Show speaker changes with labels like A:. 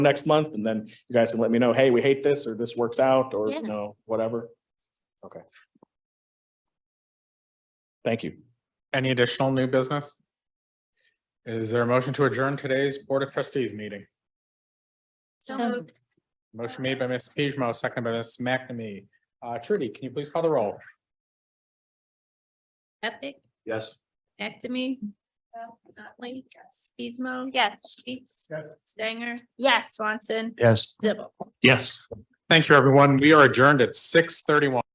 A: next month and then you guys can let me know, hey, we hate this or this works out or
B: Yeah.
A: you know, whatever. Okay. Thank you.
C: Any additional new business? Is there a motion to adjourn today's Board of Trustees meeting?
B: So
D: Um,
B: moved.
C: Motion made by Ms. Pishmo, seconded by Ms. McNamee. Uh, Trudy, can you please call the roll?
D: Epic,
A: Yes.
D: Ectomy. Notley. Yes. Pismo. Yes. Sheets. Stanger.
B: Yes.
D: Swanson.
A: Yes.
D: Zibble.
A: Yes.
C: Thank you, everyone. We are adjourned at six thirty-one.